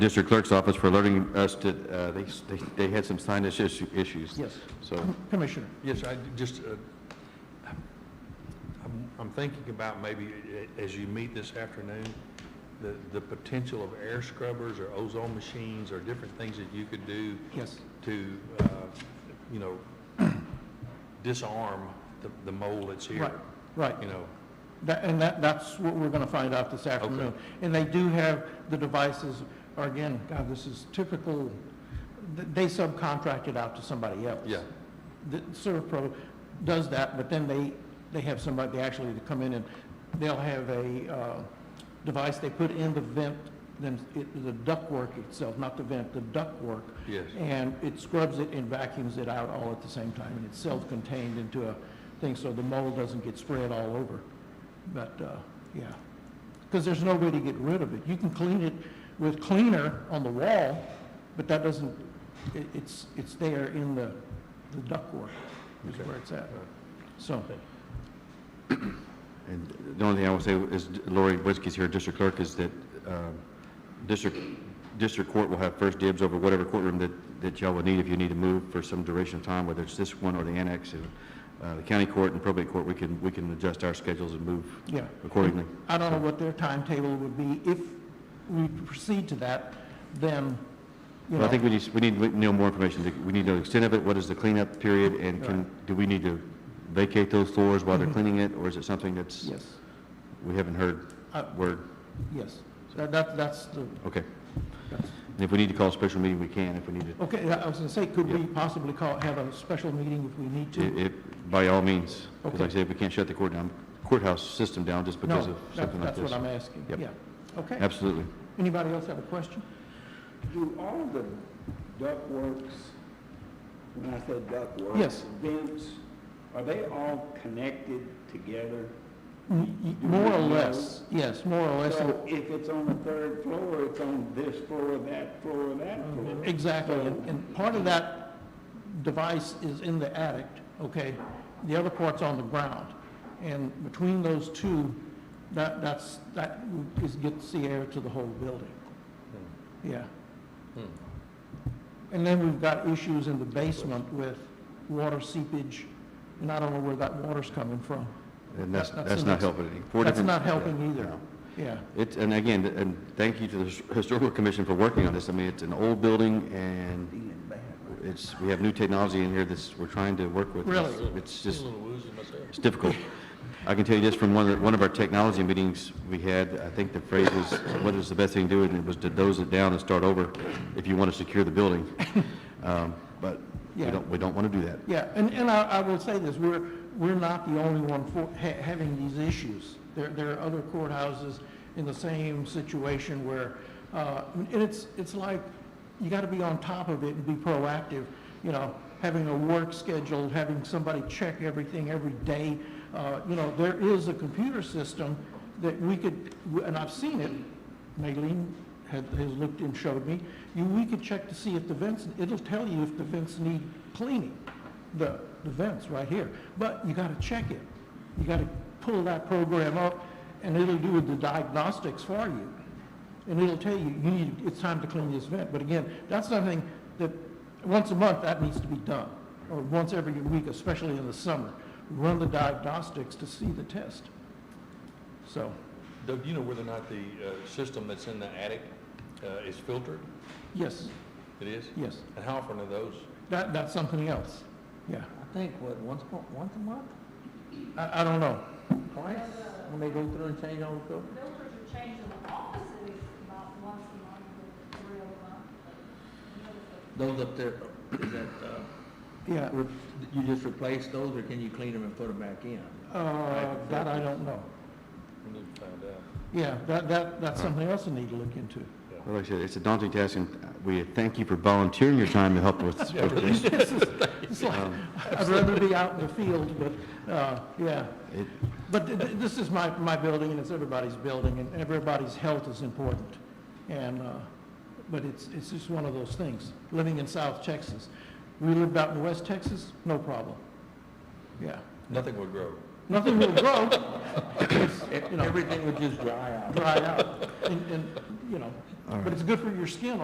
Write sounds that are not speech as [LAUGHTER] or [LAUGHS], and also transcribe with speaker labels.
Speaker 1: district clerk's office for alerting us to, uh, they, they- they had some sinus issue- issues.
Speaker 2: Yes.
Speaker 1: So,
Speaker 2: Commissioner,
Speaker 3: Yes, I just, uh, I'm- I'm thinking about maybe a- as you meet this afternoon, the, the potential of air scrubbers or ozone machines or different things that you could do
Speaker 2: yes.
Speaker 3: to, uh, you know, disarm the, the mold that's here.
Speaker 2: Right, right.
Speaker 3: You know,
Speaker 2: That, and that, that's what we're gonna find out this afternoon. And they do have, the devices, or again, God, this is typical, th- they subcontracted out to somebody else.
Speaker 3: Yeah.
Speaker 2: The Servpro does that, but then they, they have somebody, they actually come in and they'll have a, uh, device they put in the vent, then it, the ductwork itself, not the vent, the ductwork.
Speaker 3: yes.
Speaker 2: And it scrubs it and vacuums it out all at the same time, and it's self-contained into a thing, so the mold doesn't get spread all over. But, uh, yeah, because there's no way to get rid of it. You can clean it with cleaner on the wall, but that doesn't, it, it's, it's there in the, the ductwork is
Speaker 3: Okay.
Speaker 2: where it's at,
Speaker 3: Uh,
Speaker 2: so.
Speaker 1: and the only thing I will say is Lori Whiskey's here, district clerk, is that, um, district, district court will have first dibs over whatever courtroom that, that y'all would need if you need to move for some duration of time, whether it's this one or the annex. And, Uh, the county court and probate court, we can, we can adjust our schedules and move
Speaker 2: Yeah.
Speaker 1: accordingly.
Speaker 2: I don't know what their timetable would be. If we proceed to that, then, you
Speaker 1: Well,
Speaker 2: know,
Speaker 1: I think we need, we need to know more information. We need to know the extent of it, what is the cleanup period, and can, do we need to vacate those floors while they're
Speaker 2: Mm-hmm.
Speaker 1: cleaning it, or is it something that's,
Speaker 2: yes,
Speaker 1: we haven't heard
Speaker 2: Uh,
Speaker 1: word?
Speaker 2: yes. That, that, that's the,
Speaker 1: Okay.
Speaker 2: that's
Speaker 1: And if we need to call a special meeting, we can, if we need to.
Speaker 2: Okay, I was going to say, could we
Speaker 1: Yeah.
Speaker 2: possibly call, have a special meeting if we need to?
Speaker 1: If, by all means, because like I
Speaker 2: Okay.
Speaker 1: said, we can't shut the court down, courthouse system down just because of
Speaker 2: No,
Speaker 1: something
Speaker 2: that-
Speaker 1: like
Speaker 2: that's
Speaker 1: this.
Speaker 2: what I'm asking,
Speaker 1: Yep.
Speaker 2: yeah. Okay.
Speaker 1: Absolutely.
Speaker 2: Anybody else have a question?
Speaker 4: Do all the ductworks, when I say ductworks?
Speaker 2: Yes.
Speaker 4: Vents, are they all connected together?
Speaker 2: M- m- More or less, yes, more or less.
Speaker 4: So if it's on the third floor, it's on this floor, that floor, that floor?
Speaker 2: Exactly, and, and part of that device is in the attic, okay? The other part's on the ground, and between those two, that, that's, that is, gets the air to the whole building,
Speaker 1: Hmm.
Speaker 2: yeah. And then we've got issues in the basement with water seepage, and I don't know where that water's coming from.
Speaker 1: And that's,
Speaker 2: That-
Speaker 1: that's
Speaker 2: the
Speaker 1: not
Speaker 2: next-
Speaker 1: helping any. Four
Speaker 2: That's
Speaker 1: different-
Speaker 2: not
Speaker 1: yeah,
Speaker 2: helping either,
Speaker 1: no.
Speaker 2: yeah,
Speaker 1: It's, and again, and thank you to the His- Historical Commission for working on this. I mean, it's an old building, and it's, we have new technology in here that's, we're trying to work with.
Speaker 2: Really?
Speaker 1: It's- It's
Speaker 3: A
Speaker 1: just,
Speaker 3: little woozy myself.
Speaker 1: it's difficult. I can tell you this from one of, the- one of our technology meetings we had, I think the phrase was, what is the best thing to do? And it was to dose it down and start over if you want to secure the
Speaker 2: [LAUGHS]
Speaker 1: building. Um, But we
Speaker 2: Yeah.
Speaker 1: don't, we don't want to do that.
Speaker 2: yeah. And, and I, I will say this, we're, we're not the only one for, ha- having these issues. There, there are other courthouses in the same situation where, uh, and it's, it's like, you gotta be on top of it and be proactive, you know, having a work schedule, having somebody check everything every day. Uh, you know, there is a computer system that we could, and I've seen it, Maylene had, has looked and showed me, you, we could check to see if the vents, it'll tell you if the vents need cleaning, the, the vents right here. But you gotta check it. You gotta pull that program up, and it'll do the diagnostics for you. And it'll tell you, you need, it's time to clean this vent. But again, that's something that, once a month, that needs to be done, or once every week, especially in the summer. Run the diagnostics to see the test. So,
Speaker 3: Doug, do you know whether or not the, uh, system that's in the attic, uh, is filtered?
Speaker 2: yes,
Speaker 3: It is?
Speaker 2: yes.
Speaker 3: And how often are those?
Speaker 2: That, that's something else, yeah.
Speaker 5: I think, what, once, mo- once a month,
Speaker 2: I, I don't know.
Speaker 5: twice, when they go through and change all the filters?
Speaker 6: Filters are changed in the offices about once a month, or three a month. but no filters.
Speaker 5: Those up there, is that, uh,
Speaker 2: Yeah,
Speaker 5: re- you just replace those, or can you clean them and put them back in?
Speaker 2: uh, that I don't know.
Speaker 3: We need to find out.
Speaker 2: Yeah, that, that, that's something else I need to look into. [LAUGHS]
Speaker 1: Well, Like I said, it's a daunting task, and we thank you for volunteering your time to help with
Speaker 2: [LAUGHS]
Speaker 1: with this.
Speaker 2: It's like, I'd rather be out in the field, but, uh, yeah.
Speaker 1: It-
Speaker 2: But th- th- this is my, my building, and it's everybody's building, and everybody's health is important. And, uh, but it's, it's just one of those things, living in South Texas. We lived out in West Texas, no problem. Yeah,
Speaker 3: Nothing would grow.
Speaker 2: Nothing will grow. It's, you know,
Speaker 5: Everything would just dry out.
Speaker 2: dry out, and, and, you know, but it's good for your skin